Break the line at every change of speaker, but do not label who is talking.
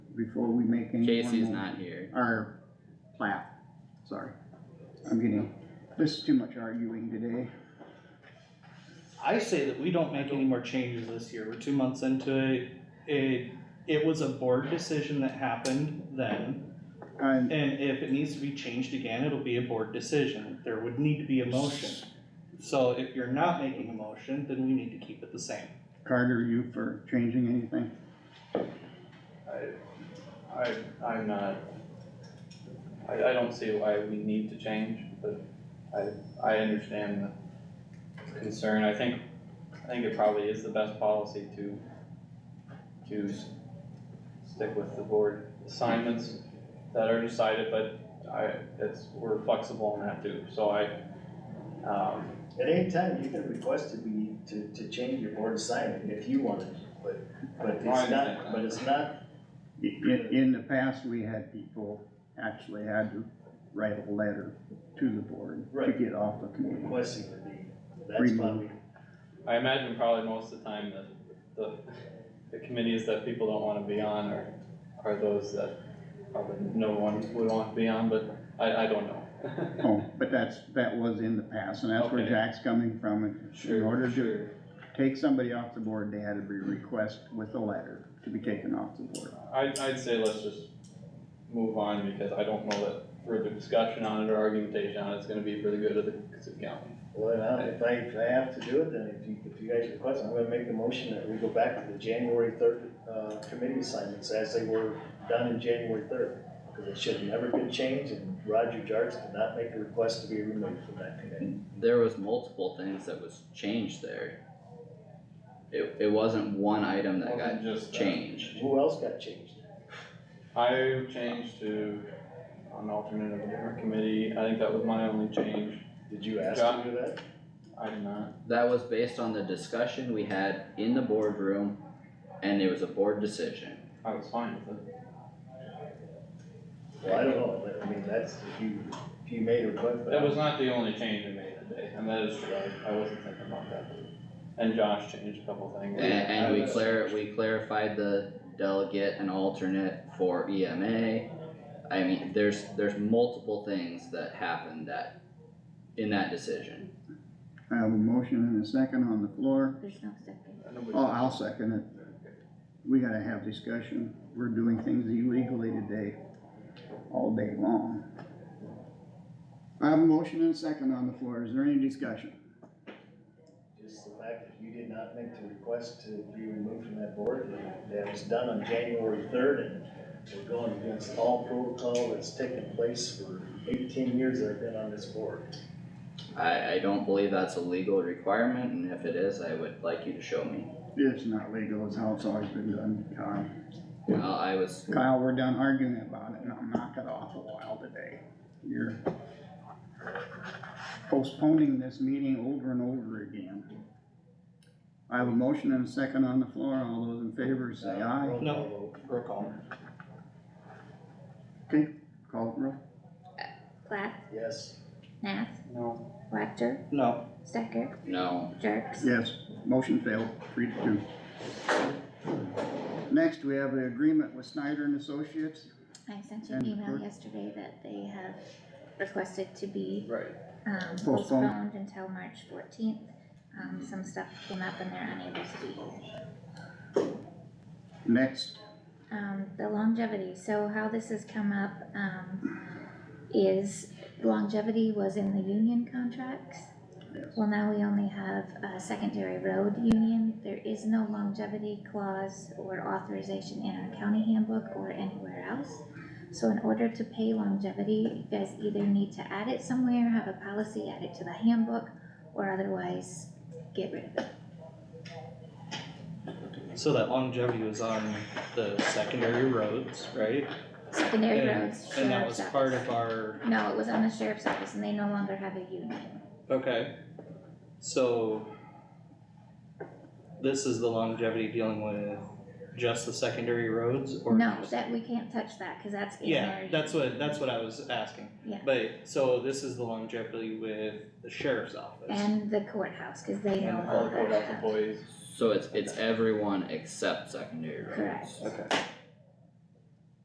before we make any more.
Casey's
mo-
not here.
Or plat, sorry. I'm getting, this is too much arguing today.
I say that we don't make any more changes this year, we're two months into it, it, it was a board decision that happened then.
I'm,
And if it needs to be changed again, it'll be a board decision, there would need to be a motion. So if you're not making a motion, then we need to keep it the same.
Carter, you for changing anything?
I, I, I'm not, I, I don't see why we need to change, but I, I understand the concern, I think, I think it probably is the best policy to, to s- stick with the board assignments that are decided, but I, it's, we're flexible on that too, so I, um,
At any time, you can request to be, to, to change your board assignment if you wanted, but, but
No, I
it's
understand
not, but it's not,
In, in the past, we had people actually had to write a letter to the board to
Right.
get off the committee.
requesting to be, that's why we,
I imagine probably most of the time that the, the committees that people don't wanna be on are, are those that probably no one would want to be on, but I, I don't know.
Oh, but that's, that was in the past, and that's where
Okay.
Jack's coming from. In order to take somebody off the board, they had to be request with a letter to be taken off the board.
I, I'd say let's just move on because I don't know that further discussion on it or argumentation on it's gonna be for the good of the county.
well, now, if I, if I have to do it, then if you, if you guys request, I'm gonna make the motion that we go back to the January third, uh, committee assignments as they were done in January third. Cause it should have never been changed and Roger Jarvis did not make a request to be removed from that committee.
There was multiple things that was changed there. It, it wasn't one item that got
Wasn't just that.
changed.
Who else got changed?
I changed to an alternate of a different committee. I think that was my only change.
Did you ask to do that?
I did not.
That was based on the discussion we had in the boardroom and it was a board decision.
I was fine with it.
Well, I don't know, I mean, that's, if you, if you made a request.
That was not the only change I made today, and that is true, I, I wasn't thinking about that. And Josh changed a couple things.
And, and we
I was-
clar- we clarified the delegate and alternate for EMA. I mean, there's, there's multiple things that happened that, in that decision.
I have a motion and a second on the floor.
There's no second.
Nobody-
Oh, I'll second it. We gotta have discussion. We're doing things illegally today, all day long. I have a motion and a second on the floor. Is there any discussion?
Just the fact that you did not make the request to be removed from that board, that was done on January third, and we're going against all protocol that's taken place for eighteen years that I've been on this board.
I, I don't believe that's a legal requirement, and if it is, I would like you to show me.
It's not legal, it's how it's always been done, Kyle.
Well, I was,
Kyle, we're done arguing about it, and I'll knock it off a while today. You're postponing this meeting over and over again. I have a motion and a second on the floor. All those in favor say aye.
No. Roll call.
Call the roll.
Plath,
Yes,
Nath,
No,
Wactor,
No,
Stecker,
no,
Jerks.
Yes, motion failed, three to two. Next, we have an agreement with Snyder and Associates.
I sent you an
And
email
we're-
yesterday that they have requested to be,
right,
um,
Postponed.
postponed until March fourteenth. Um, some stuff came up and they're unable to be here.
Next,
um, the longevity, so how this has come up, um, is longevity was in the union contracts.
Yes.
Well, now we only have a secondary road union, there is no longevity clause or authorization in our county handbook or anywhere else. So in order to pay longevity, you guys either need to add it somewhere, have a policy, add it to the handbook, or otherwise get rid of it.
so that longevity was on the secondary roads, right?
Secondary
And-
roads, sheriff's office.
And that was part of our
No, it was on the sheriff's office and they no longer have a union.
Okay, so this is the longevity dealing with just the secondary roads or?
No,
just-
that, we can't touch that, cause that's. in
Yeah,
there.
that's what, that's what I was asking.
Yeah.
But, so this is the longevity with the sheriff's office.
And the courthouse, cause they no
and all the
longer
courthouse
have.
employees,
so it's, it's everyone except secondary roads.
Correct.
Okay.